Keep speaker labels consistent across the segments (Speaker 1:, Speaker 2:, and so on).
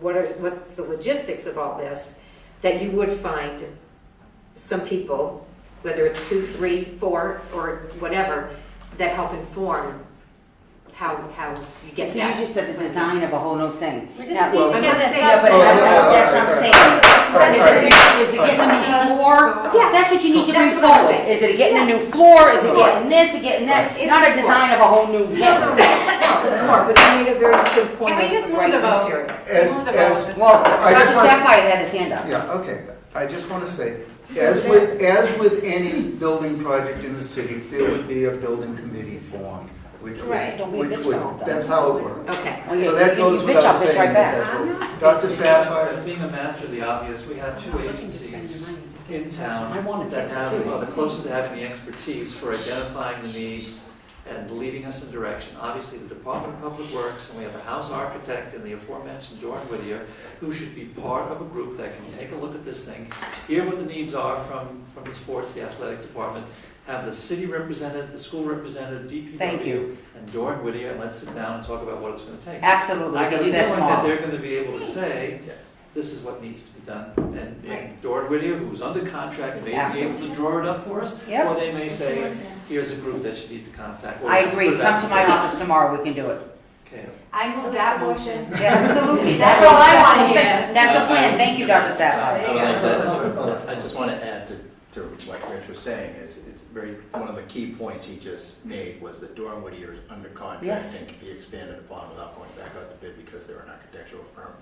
Speaker 1: what are, what's the logistics of all this, that you would find some people, whether it's two, three, four, or whatever, that help inform how, how you get
Speaker 2: So you
Speaker 1: that.
Speaker 2: just said the design of a whole new thing.
Speaker 3: We just
Speaker 2: Now-
Speaker 3: need
Speaker 4: to
Speaker 2: I'm
Speaker 4: get
Speaker 2: not
Speaker 1: that
Speaker 2: saying that, but
Speaker 1: Oh,
Speaker 2: that's
Speaker 4: yeah,
Speaker 2: that's what I'm
Speaker 4: right,
Speaker 2: saying.
Speaker 4: right,
Speaker 2: Is
Speaker 4: right.
Speaker 2: it getting- Is it getting a new floor?
Speaker 1: Yeah.
Speaker 2: That's what you need to
Speaker 1: That's
Speaker 2: bring
Speaker 1: what I'm
Speaker 2: forward.
Speaker 1: saying.
Speaker 2: Is it getting a new floor? Is it
Speaker 4: Right.
Speaker 2: getting this, Is it getting that?
Speaker 1: It's
Speaker 2: Not
Speaker 1: the
Speaker 2: a design of a whole new
Speaker 1: No, no, no,
Speaker 2: thing.
Speaker 1: no, more, but you made a very good point.
Speaker 3: Can we
Speaker 1: of
Speaker 3: just
Speaker 1: the
Speaker 3: move
Speaker 1: right
Speaker 3: the vote?
Speaker 1: material.
Speaker 4: As,
Speaker 3: Move the vote.
Speaker 4: as,
Speaker 2: Well,
Speaker 4: I
Speaker 2: Dr.
Speaker 4: just want-
Speaker 2: Sapphire had his hand up.
Speaker 4: yeah, okay, I just want to say, as with, as with any building project in the city, there would be a building committee formed, which would,
Speaker 2: Right, don't be a
Speaker 4: which
Speaker 2: bitch
Speaker 4: would,
Speaker 2: about that.
Speaker 4: that's how it works.
Speaker 1: Okay.
Speaker 2: Oh, yeah,
Speaker 4: So
Speaker 2: you
Speaker 4: that
Speaker 2: can- you
Speaker 4: goes
Speaker 2: bitch,
Speaker 4: without
Speaker 2: I'll bitch
Speaker 4: saying
Speaker 2: right
Speaker 4: that
Speaker 2: back.
Speaker 4: that's what, Dr. Sapphire,
Speaker 5: Being a master of the obvious, we have two agencies in
Speaker 2: I wanna
Speaker 5: town that
Speaker 2: fix it
Speaker 5: have,
Speaker 2: too.
Speaker 5: are the closest to having the expertise for identifying the needs and leading us in direction. Obviously, the Department of Public Works, and we have a house architect and the aforementioned Dorn Whittier, who should be part of a group that can take a look at this thing, hear what the needs are from, from the sports, the athletic department, have the city represented, the school represented,
Speaker 2: Thank
Speaker 5: DPW,
Speaker 2: you.
Speaker 5: and Dorn Whittier, and let's sit down and talk about what it's gonna take.
Speaker 2: Absolutely, we
Speaker 5: I
Speaker 2: can
Speaker 5: can
Speaker 2: do
Speaker 5: feel
Speaker 2: that
Speaker 5: like that
Speaker 2: tomorrow.
Speaker 5: they're gonna be able to say, this is what needs to be done. And, and Dorn Whittier, who's under contract, may be able
Speaker 2: Absolutely.
Speaker 5: to draw it up for us.
Speaker 2: Yep.
Speaker 5: Or they may say, here's a group that you need to contact. or
Speaker 2: I agree,
Speaker 5: put that
Speaker 2: come to my
Speaker 5: together.
Speaker 2: office tomorrow, we can do it.
Speaker 5: Okay.
Speaker 3: I move that motion.
Speaker 2: Yeah, Absolutely, that's
Speaker 3: That's
Speaker 2: all
Speaker 3: all I
Speaker 2: I
Speaker 3: wanna
Speaker 2: want to hear.
Speaker 3: hear.
Speaker 2: That's a plan, thank you, Dr. Sapphire.
Speaker 5: Uh,
Speaker 6: I would like to- I just want to add to, to what Rich was saying, is it's very, one of the key points he just made was that Durham Whittier is under contract
Speaker 2: Yes.
Speaker 6: and can be expanded upon without going back out to bid because they're an architectural firm.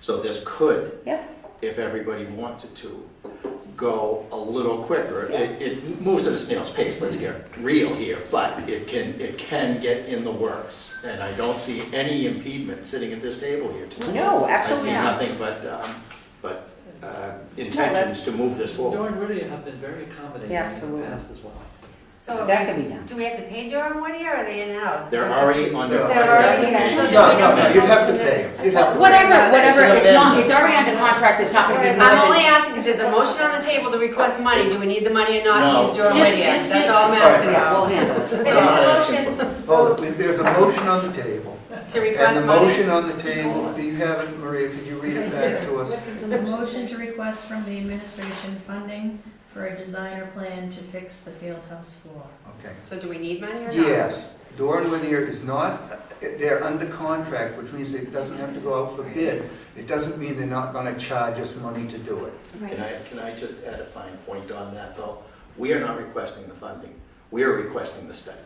Speaker 6: So this could,
Speaker 2: Yeah,
Speaker 6: if everybody wants it to, go a little quicker. It, it moves at a snail's pace, let's get real here, but it can, it can get in the works. And I don't see any impediment sitting at this table here tonight.
Speaker 2: no, absolutely not.
Speaker 6: I see nothing but, um, but uh, intentions to move this forward.
Speaker 5: Dorn Whittier have been very accommodating
Speaker 2: Yeah,
Speaker 5: in the
Speaker 2: absolutely.
Speaker 5: past as well.
Speaker 3: So,
Speaker 2: That could be done.
Speaker 3: do we have to pay Durham one year, or are they in-house?
Speaker 6: They're already on their.
Speaker 4: They're
Speaker 3: already
Speaker 2: in.
Speaker 6: No,
Speaker 2: So
Speaker 4: no,
Speaker 6: no,
Speaker 4: no, no, you'd have to
Speaker 3: Yeah.
Speaker 4: pay, you'd have to pay.
Speaker 2: Whatever, whatever,
Speaker 6: It's an
Speaker 2: it's not,
Speaker 6: amendment.
Speaker 2: it's already under contract, it's not gonna be more
Speaker 3: I'm only
Speaker 2: than.
Speaker 3: asking, because there's a motion on the table to request money, do we need the money or not
Speaker 6: No.
Speaker 3: to use Durham
Speaker 2: Just-
Speaker 3: Whittier?
Speaker 2: just-
Speaker 3: That's all I'm
Speaker 4: just-
Speaker 3: asking
Speaker 2: Yeah, we'll
Speaker 3: about.
Speaker 2: handle it.
Speaker 6: They're not asking for-
Speaker 4: Oh, there's a motion on the table,
Speaker 3: To
Speaker 4: and
Speaker 3: request
Speaker 4: the
Speaker 3: money.
Speaker 4: motion on the table, do you have it, Maria, could you read it back to us?
Speaker 7: The motion to request from the administration funding for a designer plan to fix the field house floor.
Speaker 4: Okay.
Speaker 3: So do we need money or not?
Speaker 4: Yes, Doran Whittier is not, they're under contract, which means it doesn't have to go out for bid. It doesn't mean they're not gonna charge us money to do it.
Speaker 6: Can I, can I just add a fine point on that, though? We are not requesting the funding. We are requesting the study.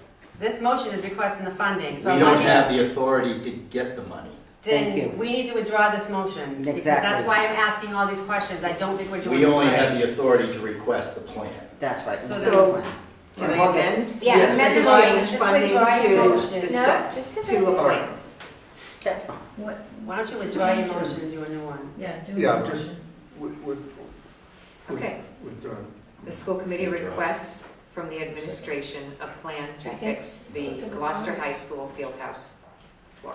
Speaker 3: This motion is requesting the funding,
Speaker 6: We
Speaker 3: so.
Speaker 6: don't
Speaker 3: money-
Speaker 6: have the authority to get the money.
Speaker 2: Thank you.
Speaker 3: Then we need to withdraw this motion. Because that's
Speaker 2: Exactly.
Speaker 3: why I'm asking all these questions, I don't think we're doing
Speaker 6: We
Speaker 3: this
Speaker 6: only
Speaker 3: right.
Speaker 6: have the authority to request the plan.
Speaker 2: That's right.
Speaker 3: So
Speaker 2: it's a
Speaker 3: then-
Speaker 2: plan.
Speaker 1: Can
Speaker 2: We'll
Speaker 1: I
Speaker 2: get
Speaker 1: amend?
Speaker 3: Yeah,
Speaker 4: Yes.
Speaker 3: amend the
Speaker 1: To
Speaker 3: motion,
Speaker 1: change
Speaker 3: just
Speaker 1: funding
Speaker 3: withdraw your
Speaker 1: to
Speaker 3: motion.
Speaker 1: the
Speaker 3: No,
Speaker 1: step- To a
Speaker 4: All right.
Speaker 1: plan.
Speaker 2: That's fine.
Speaker 7: What,
Speaker 3: Why don't you withdraw your motion and do a new one?
Speaker 7: yeah, do
Speaker 4: Yeah,
Speaker 7: the
Speaker 4: just-
Speaker 7: motion.
Speaker 4: With- with- with-
Speaker 1: Okay.
Speaker 4: with Doran.
Speaker 1: The school committee requests from the administration a plan to fix the Gloucester High School field house floor.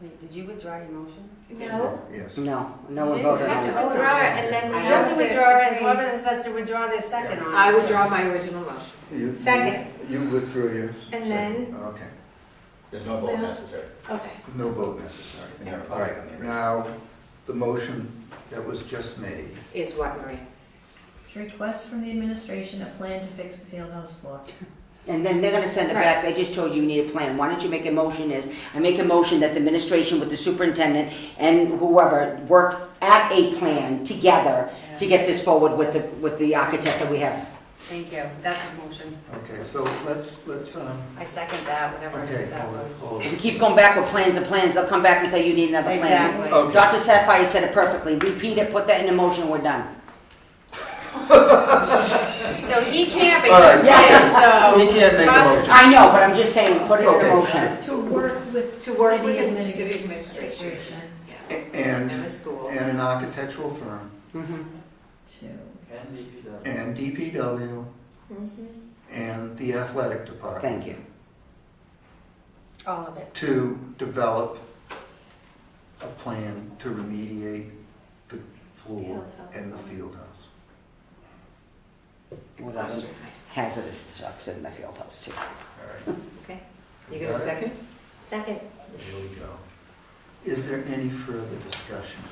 Speaker 3: Wait, did you withdraw your motion?
Speaker 4: Yes.
Speaker 2: No, no one voted on
Speaker 4: You
Speaker 2: that.
Speaker 3: Withdraw, it, and then we
Speaker 1: I
Speaker 3: have to
Speaker 1: don't
Speaker 3: withdraw, it, and whoever says to withdraw their second on.
Speaker 1: I withdraw my original motion.
Speaker 4: You-
Speaker 3: Second.
Speaker 4: You withdrew yours.
Speaker 3: And
Speaker 4: Second. Okay,
Speaker 6: There's no vote necessary.
Speaker 3: Okay.
Speaker 4: no vote necessary.
Speaker 6: And you're
Speaker 4: All
Speaker 6: voting on the
Speaker 4: right,
Speaker 6: original.
Speaker 4: now, the motion that was just made.
Speaker 1: Is what, Maria?
Speaker 7: To request from the administration a plan to fix the field house floor.
Speaker 2: And then they're gonna send it back, they just told you you need a plan, why don't you make a motion is, I make a motion that the administration with the superintendent and whoever work at a plan together to get this forward with the, with the architect that we have.
Speaker 3: Thank you, that's the motion.
Speaker 4: Okay, so let's, let's, um,
Speaker 3: I second that, whatever
Speaker 4: okay,
Speaker 3: that
Speaker 4: hold it,
Speaker 3: was.
Speaker 4: hold
Speaker 2: If you
Speaker 4: it.
Speaker 2: keep going back with plans and plans, they'll come back and say you need another plan.
Speaker 3: Exactly.
Speaker 4: Okay.
Speaker 2: Dr. Sapphire said it perfectly, repeat it, put that in the motion, we're done.
Speaker 3: So he can't,
Speaker 4: All right.
Speaker 3: but you did, so.
Speaker 4: We can't make a motion.
Speaker 2: I know, but I'm just saying, put it in the
Speaker 4: Okay.
Speaker 2: motion.
Speaker 7: To work with.
Speaker 1: To work
Speaker 7: city
Speaker 1: with the
Speaker 7: admin-
Speaker 1: city administration. Yeah. And the
Speaker 4: And,
Speaker 1: school.
Speaker 4: and an architectural firm.
Speaker 2: Mhm.
Speaker 7: To,
Speaker 5: And DPW.
Speaker 4: and DPW and the athletic department
Speaker 2: Thank you.
Speaker 3: All of it.
Speaker 4: to develop a plan to remediate the floor and the field house.
Speaker 2: What else?
Speaker 1: Gloucester High School.
Speaker 2: Hazardous stuff in the field house too.
Speaker 4: All right,
Speaker 1: Okay. You got a second?
Speaker 4: here we go. Is there any further discussion?